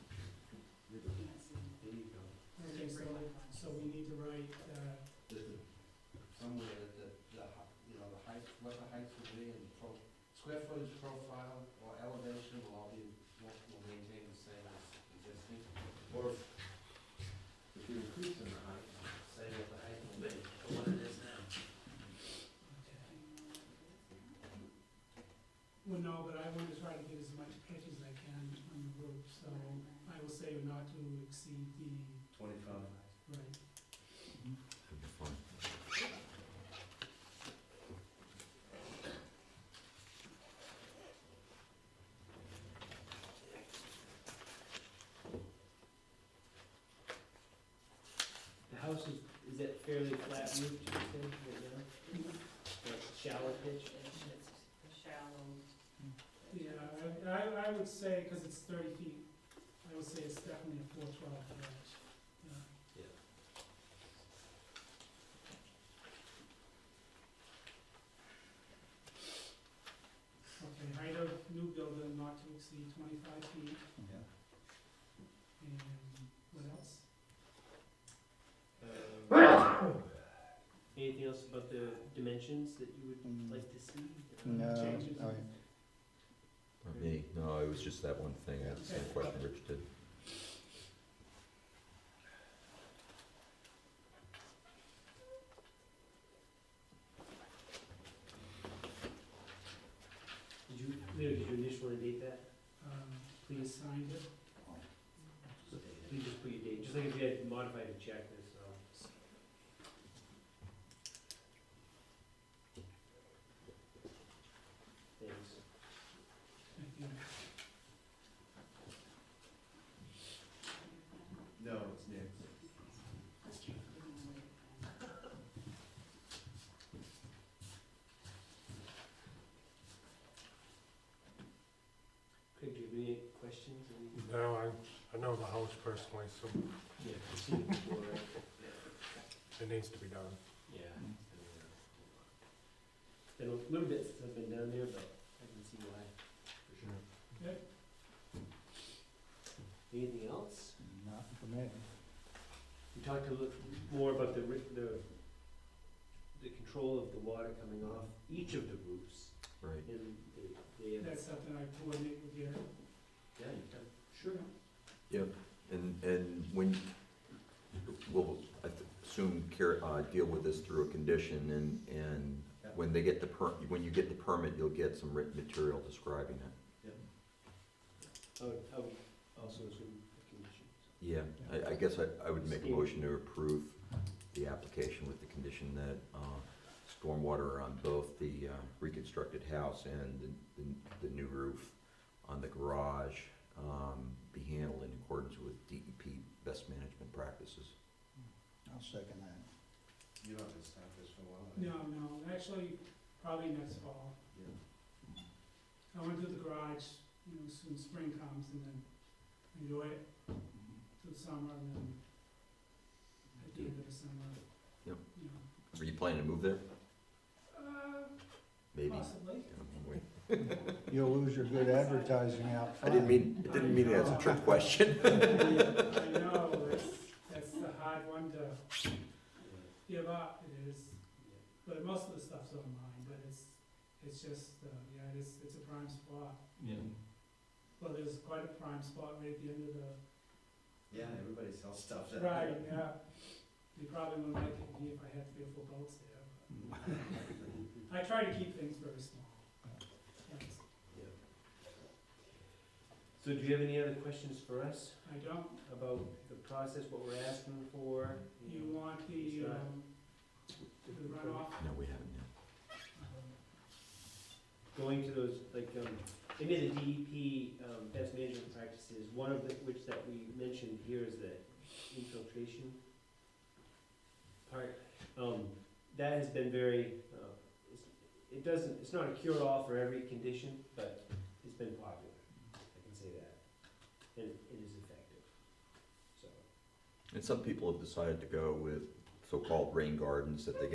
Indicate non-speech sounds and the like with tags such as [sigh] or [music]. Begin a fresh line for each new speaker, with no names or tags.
uh,
Square footage profile or elevation will all be, will will maintain the same as existing,
Or if you increase in the height,
same as the height will be, or what it is now.
Well, no, but I want to try to get as much pitch as I can on the roof, so I will say not to exceed the,
twenty-five.
right,
The house is, is that fairly flat roof, do you think, right now? Like shallow pitch?
Yeah, I- I, I would say, because it's thirty feet, I would say it's definitely a four twelve garage. Yeah.
Yeah.
Okay, height of new building not to exceed twenty-five feet,
Yeah.
and what else?
Um, Anything else about the dimensions that you would
Mm.
like to see? Uh,
No,
changes?
all right.
Or me, no, it was just that one thing, that's the
Okay.
question Rich did.
Did you, Leo, did you initially date that?
Um,
Please,
signed it,
please just put your date, just like if you had modified the checklist, so. Thanks.
thank you.
No, it's next.
Craig, do you have any questions? Any-
No, I, I know the house personally, so
Yeah, I've seen it before, right?
it needs to be done.
Yeah. Been a little bit since I've been down there, but I can see why, for sure.
Okay.
Anything else?
Not for me.
We talked a little more about the, ri- the, the control of the water coming off each of the roofs
Right.
and the, the, yeah,
That's something I coordinate with Gary.
you've done, sure.
Yep, and, and when, we'll, I th- assume, care, uh, deal with this through a condition and, and
Yeah.
when they get the per, when you get the permit, you'll get some written material describing it.
I would, I would also assume the condition.
Yeah, I, I guess I, I would make a motion to approve the application with the condition that, uh, stormwater on both the uh, reconstructed house and the, the- the new roof on the garage, um, be handled in accordance with DEP best management practices.
I'll second that.
You don't have to stop this for a while.
No, no, actually, probably next fall.
Yeah.
I went to the garage, you know, soon spring comes and then enjoy it through summer and then at the end of the summer.
Yep.
You know,
Are you planning to move there?
uh,
Maybe.
possibly.
Wait.
You'll lose your good advertising out
I
front.
didn't mean, I didn't mean it as a trick question.
[laughs] I know, that's, that's the hard one to give up, it is, but most of the stuff's online, but it's, it's just, uh, yeah, it's, it's a prime spot.
Yeah.
Well, there's quite a prime spot right at the end of the
Yeah, everybody sells stuff. down
Right,
[laughs]
there.
yeah. You probably wouldn't like it me if I had three or four boats there. but I try to keep things very small. Thanks.
So do you have any other questions for us
I don't,
about the process, what we're asking for?
you want the, um, the runoff,
No, we haven't yet.
going to those, like, um, they made the DEP, um, best management practices, one of the, which that we mentioned here is the infiltration part. Um, that has been very, uh, it's- it doesn't, it's not a cure-all for every condition, but it's been popular, I can say that. And it is effective, so.
And some people have decided to go with so-called rain gardens that they